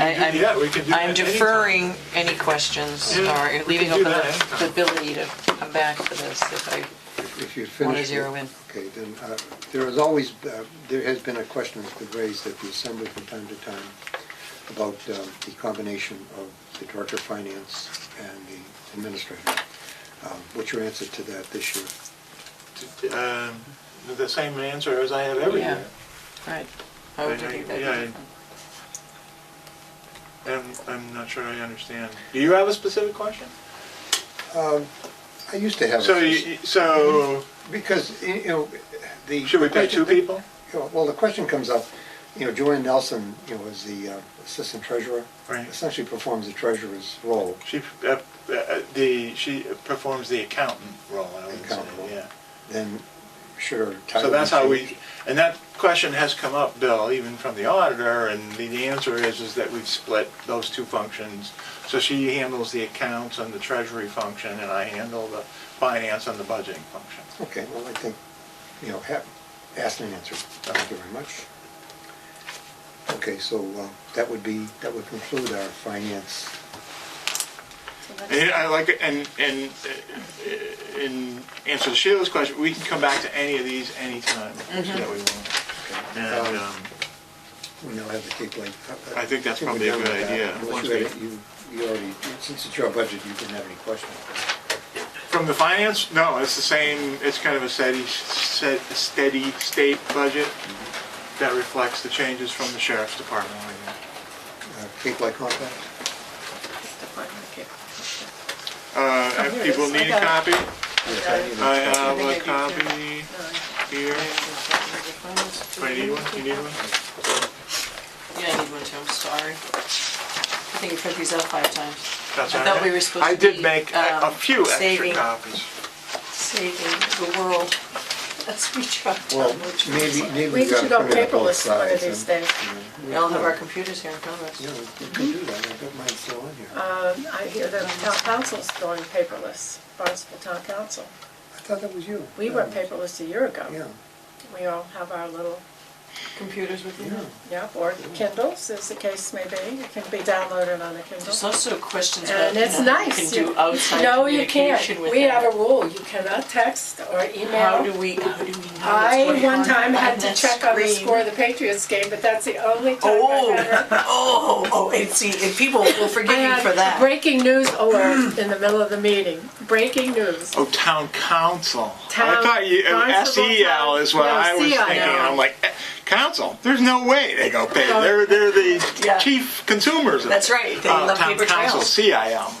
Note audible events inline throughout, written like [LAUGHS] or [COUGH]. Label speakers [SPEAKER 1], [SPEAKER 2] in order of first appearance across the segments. [SPEAKER 1] I-
[SPEAKER 2] can do
[SPEAKER 1] I'm-
[SPEAKER 2] that. We can do that
[SPEAKER 1] I'm
[SPEAKER 2] anytime.
[SPEAKER 1] deferring any questions
[SPEAKER 2] Yeah, we
[SPEAKER 1] or
[SPEAKER 2] can
[SPEAKER 1] leaving
[SPEAKER 2] do
[SPEAKER 1] open
[SPEAKER 2] that
[SPEAKER 1] the
[SPEAKER 2] anytime.
[SPEAKER 1] the ability to come back to this if I,
[SPEAKER 3] If you
[SPEAKER 1] Wanna
[SPEAKER 3] finish. it-
[SPEAKER 1] zero in.
[SPEAKER 3] Okay, then, uh, there has always, uh, there has been a question that's been raised at the assembly from time to time about um, the combination of the director of finance and the administrator. Um, What's your answer to that this year?
[SPEAKER 2] Um, The same answer as I have every
[SPEAKER 1] Yeah.
[SPEAKER 2] year.
[SPEAKER 1] right. I would
[SPEAKER 2] I- I-
[SPEAKER 1] think that'd be
[SPEAKER 2] yeah, I-
[SPEAKER 1] different.
[SPEAKER 2] I'm, I'm not sure I understand. Do you have a specific question?
[SPEAKER 3] Um, I used to have,
[SPEAKER 2] So,
[SPEAKER 3] a- Mm-hmm.
[SPEAKER 2] you- so
[SPEAKER 3] because, you know, the.
[SPEAKER 2] should we pay two people?
[SPEAKER 3] You know, Well, the question comes up, you know, Joanne Nelson, you know, is the uh, assistant treasurer.
[SPEAKER 2] Right.
[SPEAKER 3] Essentially performs the treasurer's role.
[SPEAKER 2] She, uh, uh, the, she performs the accountant role, I would say,
[SPEAKER 3] Accountant role.
[SPEAKER 2] yeah.
[SPEAKER 3] Then should her title.
[SPEAKER 2] So that's
[SPEAKER 3] be
[SPEAKER 2] how
[SPEAKER 3] changed?
[SPEAKER 2] we, and that question has come up, Bill, even from the auditor, and the, the answer is, is that we've split those two functions. So she handles the accounts and the treasury function, and I handle the finance and the budgeting function.
[SPEAKER 3] Okay, well, I think, you know, have, asked and answered. Thank you very much. Okay, so uh, that would be, that would conclude our finance.
[SPEAKER 2] And I like, it, and, and uh, in answer to Sheila's question, we can come back to any of these anytime that we want. And, um,
[SPEAKER 3] We now have the Cape Light.
[SPEAKER 2] I think that's
[SPEAKER 3] we're
[SPEAKER 2] probably a
[SPEAKER 3] done
[SPEAKER 2] good
[SPEAKER 3] with that.
[SPEAKER 2] idea.
[SPEAKER 3] Unless
[SPEAKER 2] Once
[SPEAKER 3] you
[SPEAKER 2] we-
[SPEAKER 3] had- You, you already, since it's your budget, you didn't have any questions.
[SPEAKER 2] From the finance, no, it's the same, it's kind of a steady, set, steady state budget that reflects the changes from the sheriff's department.
[SPEAKER 3] Uh, Cape Light contract?
[SPEAKER 2] Uh,
[SPEAKER 4] here
[SPEAKER 2] if
[SPEAKER 4] it is.
[SPEAKER 2] people need a
[SPEAKER 4] I got
[SPEAKER 2] copy,
[SPEAKER 3] Yes, I need a
[SPEAKER 2] Uh, I
[SPEAKER 3] copy.
[SPEAKER 2] have a
[SPEAKER 4] think I do too.
[SPEAKER 2] copy here. Do I need one? Do you need one?
[SPEAKER 1] Yeah, I need one too, I'm sorry. I think you print these out five times.
[SPEAKER 2] That's
[SPEAKER 1] I
[SPEAKER 2] all
[SPEAKER 1] thought we
[SPEAKER 2] right.
[SPEAKER 1] were supposed
[SPEAKER 2] I
[SPEAKER 1] to
[SPEAKER 2] did
[SPEAKER 1] be,
[SPEAKER 2] make a a
[SPEAKER 1] um,
[SPEAKER 2] few extra
[SPEAKER 1] saving-
[SPEAKER 2] copies.
[SPEAKER 1] Saving the world. [LAUGHS] That's we tried to.
[SPEAKER 3] Well,
[SPEAKER 1] which was-
[SPEAKER 3] maybe, maybe.
[SPEAKER 4] We
[SPEAKER 3] gotta
[SPEAKER 4] should go
[SPEAKER 3] put it on both
[SPEAKER 4] paperless one of
[SPEAKER 3] sides
[SPEAKER 4] these
[SPEAKER 3] and-
[SPEAKER 4] days.
[SPEAKER 1] We all have our computers here in front of us.
[SPEAKER 3] Yeah, we can do that, I've got mine still on here. I
[SPEAKER 4] Um, I hear that town council's going paperless, Barnstable Town Council.
[SPEAKER 3] thought that was you.
[SPEAKER 4] We went paperless a year ago.
[SPEAKER 3] Yeah,
[SPEAKER 4] We all have our little,
[SPEAKER 1] Computers with you.
[SPEAKER 3] yeah.
[SPEAKER 4] yeah, or Kindles, as the case may be. It can be downloaded on a
[SPEAKER 1] There's
[SPEAKER 4] Kindle.
[SPEAKER 1] also questions about,
[SPEAKER 4] And it's
[SPEAKER 1] you know, you can
[SPEAKER 4] nice.
[SPEAKER 1] do outside
[SPEAKER 4] No, you
[SPEAKER 1] communication
[SPEAKER 4] can't.
[SPEAKER 1] with
[SPEAKER 4] We
[SPEAKER 1] that.
[SPEAKER 4] have a rule, you cannot text or
[SPEAKER 1] How do we, how
[SPEAKER 4] email.
[SPEAKER 1] do we know what's
[SPEAKER 4] I
[SPEAKER 1] going on?
[SPEAKER 4] one time had to
[SPEAKER 1] that
[SPEAKER 4] check on the
[SPEAKER 1] screen?
[SPEAKER 4] score of the Patriots game, but that's the only time
[SPEAKER 1] Oh, [LAUGHS]
[SPEAKER 4] I've ever
[SPEAKER 1] oh, oh, and see, and people will forgive me
[SPEAKER 4] And
[SPEAKER 1] for that.
[SPEAKER 4] Breaking news alert in the middle of the meeting. Breaking news.
[SPEAKER 2] Oh, town council. I
[SPEAKER 4] Town-
[SPEAKER 2] thought you, oh,
[SPEAKER 4] Barnstable
[SPEAKER 2] SEL
[SPEAKER 4] Town-
[SPEAKER 2] E is what
[SPEAKER 4] no,
[SPEAKER 2] I was
[SPEAKER 4] CIL.
[SPEAKER 2] thinking. I'm like, eh, council, there's no way they go pay. They're, they're the
[SPEAKER 1] Yeah.
[SPEAKER 2] chief consumers. of
[SPEAKER 1] That's
[SPEAKER 2] it.
[SPEAKER 1] right. They
[SPEAKER 2] Oh,
[SPEAKER 1] love
[SPEAKER 2] town
[SPEAKER 1] paper
[SPEAKER 2] council,
[SPEAKER 1] trails. Mm-hmm.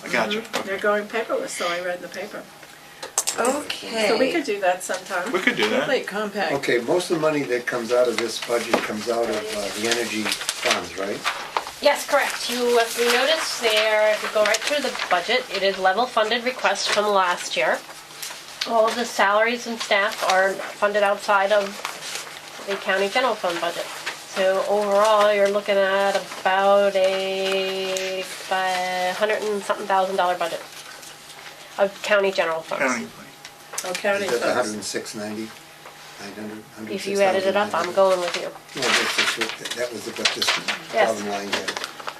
[SPEAKER 2] CIL, I got you.
[SPEAKER 4] They're going paperless, so I read in the paper.
[SPEAKER 1] Okay.
[SPEAKER 4] So we could do that sometime.
[SPEAKER 2] We could do that.
[SPEAKER 1] Like compact.
[SPEAKER 3] Okay, most of the money that comes out of this budget comes out of uh, the energy funds, right?
[SPEAKER 5] Yes, correct. You, if you notice there, if you go right through the budget, it is level funded requests from last year. All of the salaries and staff are funded outside of the county general fund budget. So overall, you're looking at about a fi- hundred and something thousand dollar budget of county general
[SPEAKER 2] County.
[SPEAKER 5] funds.
[SPEAKER 4] Oh, county
[SPEAKER 3] Is that the
[SPEAKER 4] funds.
[SPEAKER 3] 10690? 900,
[SPEAKER 5] If you added it up, I'm
[SPEAKER 3] 106,900?
[SPEAKER 5] going with you.
[SPEAKER 3] No, that's just what- that- that was the- what this
[SPEAKER 5] Yes.
[SPEAKER 3] bottom line had.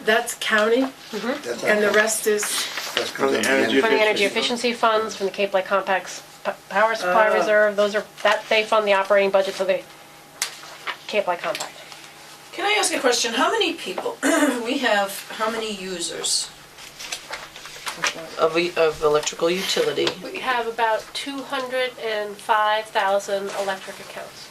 [SPEAKER 4] That's county,
[SPEAKER 3] That's
[SPEAKER 4] and the
[SPEAKER 3] how-
[SPEAKER 4] rest is,
[SPEAKER 3] that comes
[SPEAKER 2] From the
[SPEAKER 3] out of
[SPEAKER 2] energy
[SPEAKER 5] From the
[SPEAKER 2] Efficiency.
[SPEAKER 5] energy efficiency funds, from the Cape Light Compact's p- power supply
[SPEAKER 6] Uh,
[SPEAKER 4] Ah.
[SPEAKER 5] reserve, those are, that, they fund the operating budget for the Cape Light Compact.
[SPEAKER 6] Can I ask a question? How many people, [CLEARS THROAT] we have, how many users of, e- of electrical utility?
[SPEAKER 5] We have about two hundred and five thousand electric accounts.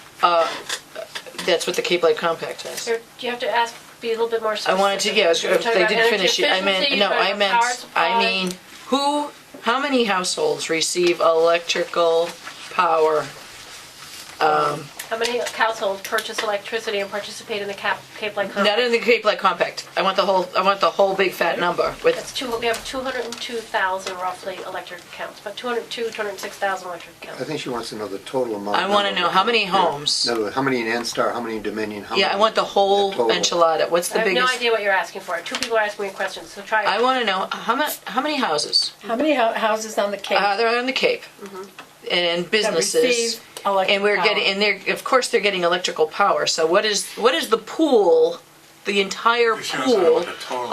[SPEAKER 6] That's what the Cape Light Compact has.
[SPEAKER 5] There, you have to ask, be a little bit more
[SPEAKER 6] I
[SPEAKER 5] specific.
[SPEAKER 6] wanted to, yeah, I was-
[SPEAKER 5] You're talking
[SPEAKER 6] they
[SPEAKER 5] about
[SPEAKER 6] didn't
[SPEAKER 5] energy
[SPEAKER 6] finish it. I meant,
[SPEAKER 5] efficiency,
[SPEAKER 6] no,
[SPEAKER 5] you're talking
[SPEAKER 6] I
[SPEAKER 5] about
[SPEAKER 6] meant,
[SPEAKER 5] power
[SPEAKER 6] I
[SPEAKER 5] supply.
[SPEAKER 6] mean, who, how many households receive electrical power?
[SPEAKER 5] How many households purchase electricity and participate in the Cap, Cape Light Compact?
[SPEAKER 6] Not in the Cape Light Compact. I want the whole, I want the whole big fat number with,
[SPEAKER 5] That's two, we have two hundred and two thousand roughly electric accounts, but two hundred and two, two hundred and six thousand electric accounts.
[SPEAKER 3] I think she wants to know the total amount.
[SPEAKER 6] I wanna
[SPEAKER 3] number.
[SPEAKER 6] know how many
[SPEAKER 3] Yeah.
[SPEAKER 6] homes.
[SPEAKER 3] In other words, how many in Anstar, how many in Dominion, how many?
[SPEAKER 6] yeah, I want the whole
[SPEAKER 3] the total.
[SPEAKER 6] enchilada. What's the
[SPEAKER 5] I have no
[SPEAKER 6] biggest?
[SPEAKER 5] idea what you're asking for. Two people are asking me questions, so try.
[SPEAKER 6] I want to know, how mu, how many houses?
[SPEAKER 4] how many hou- houses on the Cape?
[SPEAKER 6] Uh, they're on the Cape. And businesses.
[SPEAKER 4] Mm-hmm. receive electric
[SPEAKER 6] And we're
[SPEAKER 4] power.
[SPEAKER 6] getting, and they're, of course, they're getting electrical power. So what is, what is the pool
[SPEAKER 1] the entire
[SPEAKER 2] We should have said what
[SPEAKER 1] pool
[SPEAKER 2] the total